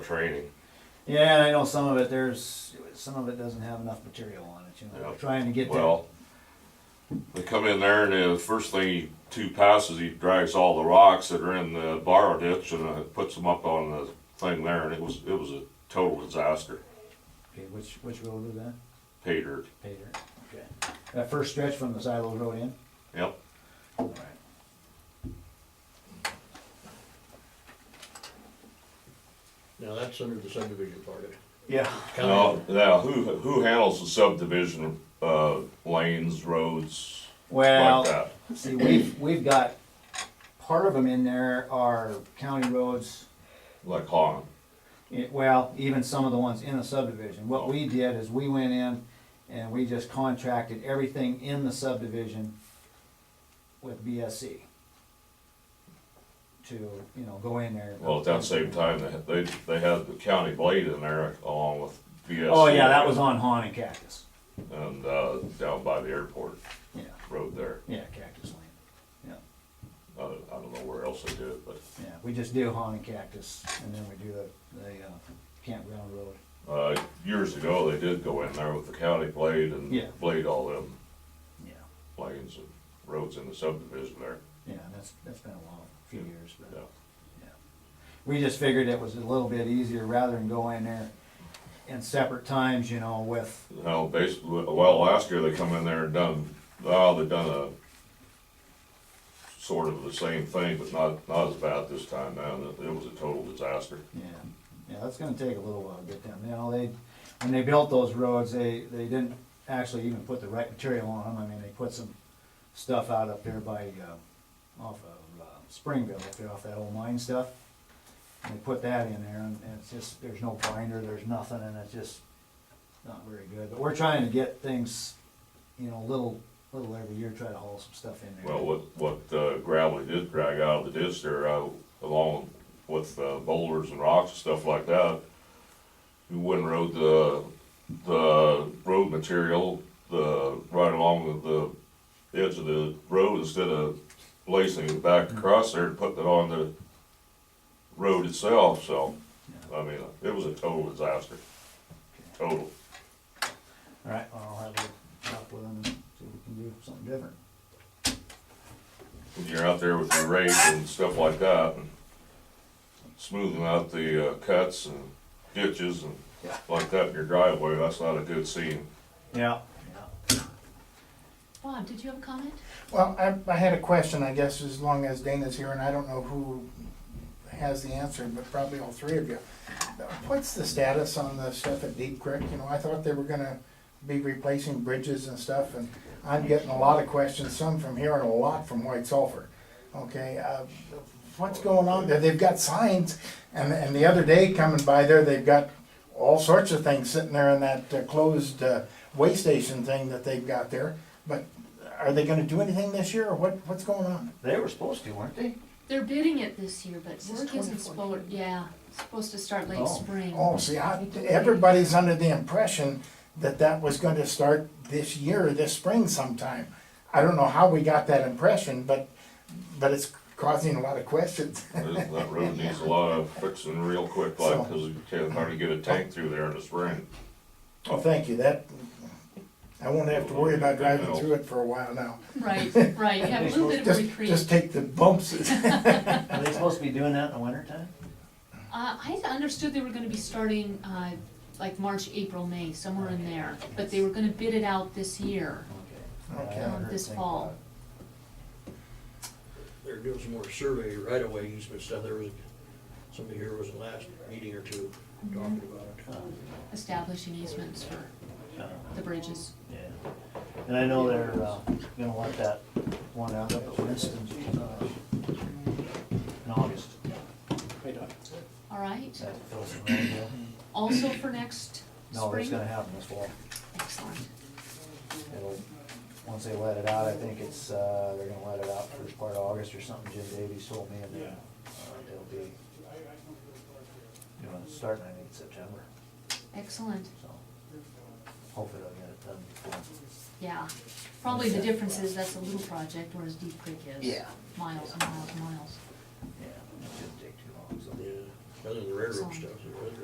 training. Yeah, and I know some of it, there's, some of it doesn't have enough material on it, you know, we're Yeah. trying to get that. Well, they come in there and the first thing he two passes, he drags all the rocks that are in the borrow ditch and uh, puts them up on the thing there, and it was it was a total disaster. Okay, which, which road is that? Pay dirt. Pater, okay. That first stretch from the Silo Road in? Yep. Alright. Now, that's under the subdivision part of it. Yeah. Now, now Oh, who who handles the subdivision uh, lanes, roads, like Well, that? see, we've, we've got, part of them in there are county roads, Like Hong. It- Eh, Well, even some of the ones in the subdivision. What we did is we went in and we just contracted everything in the subdivision with BSC. To, you know, go in there. Well, at that same time, they they, they had the county blade in there along with BSC. Oh, yeah, that was on Han and Cactus. and uh, down by the airport Yeah, road there. yeah, Cactus Lane. Yeah, I don't, I don't know where else they do it, but yeah, we just do Han and Cactus and then we do the, the uh, campground road. uh, years ago they did go in there with the county blade and Yeah. blade all them Yeah, lanes and roads in the subdivision there. yeah, that's, that's been a long, few years, but. Hmm. Yeah. Yeah. We just figured it was a little bit easier rather than go in there in separate times, you know, with, Now, basically, well, last year they come in there and done, well, they done a sort of the same thing, but not, not as bad this time, man. It, it was a total disaster. yeah, yeah, that's gonna take a little while to get them, you know, they, when they built those roads, they, they didn't actually even put the right material on them, I mean, they put some stuff out up there by, uh, off of, uh, Springville, up there off that old mine stuff. And they put that in there, and and it's just, there's no binder, there's nothing, and it's just not very good, but we're trying to get things, you know, little, little every year, try to haul some stuff in there. Well, what, what uh, gravel they did drag out of the ditch there, uh, along with uh, boulders and rocks and stuff like that, we went and rode the, the road material, the, right along the the edge of the road instead of lacing it back Mm-hmm. across there and putting it on the road itself, so, I mean, it was a total disaster, total. Alright, I'll have a talk with them and see if we can do something different. when you're out there with your rake and stuff like that, and smoothing out the uh, cuts and ditches and Yeah. like that in your driveway, that's not a good scene. Yeah. Bob, did you have a comment? Well, I, I had a question, I guess, as long as Dana's here, and I don't know who has the answer, but probably all three of you. What's the status on the stuff at Deep Creek? You know, I thought they were gonna be replacing bridges and stuff, and I'm getting a lot of questions, some from here and a lot from White Sulphur. Okay, uh, what's going on there? They've got signs, and, and the other day coming by there, they've got all sorts of things sitting there in that uh, closed uh, way station thing that they've got there. But are they gonna do anything this year, or what, what's going on? They were supposed to, weren't they? They're bidding it this year, but is work isn't supposed, 2014. yeah, supposed to start Oh. late spring. Oh, see, I, everybody's under the impression that that was gonna start this year, this spring sometime. I don't know how we got that impression, but, but it's causing a lot of questions. That that road needs a lot of fixing real quick, like, because you can't hardly get a tank through there in the spring. Well, thank you, that, I won't have to worry about driving through it for a while now. Right, right, you have a little bit of Just, reprieve. just take the bumps. Are they supposed to be doing that in the wintertime? Uh, I understood they were gonna be starting, uh, like March, April, May, somewhere in there, but they were gonna bid it out this year. um, Okay. Okay. I heard This things fall. about it. They're doing some more survey right away easement stuff. There was, somebody here was the last meeting or two talking about it. Establishing easements for Uh, the bridges. Yeah, and I know they're, uh, gonna let that one out up at Winston, uh, in August. All right, That fills the road deal. also for next No, it's spring? gonna happen this fall. Excellent. It'll, once they let it out, I think it's, uh, they're gonna let it out first part of August or something, Jim Davies told me, and then, uh, it'll be, you know, it's starting, I think, September, Excellent, so hopefully they'll get it done before. yeah. Probably the difference is that's a little project, whereas Deep Creek is Yeah. miles and miles and miles. Yeah, it shouldn't take too long, so. Yeah. other than the railroad Some. stuff, the railroad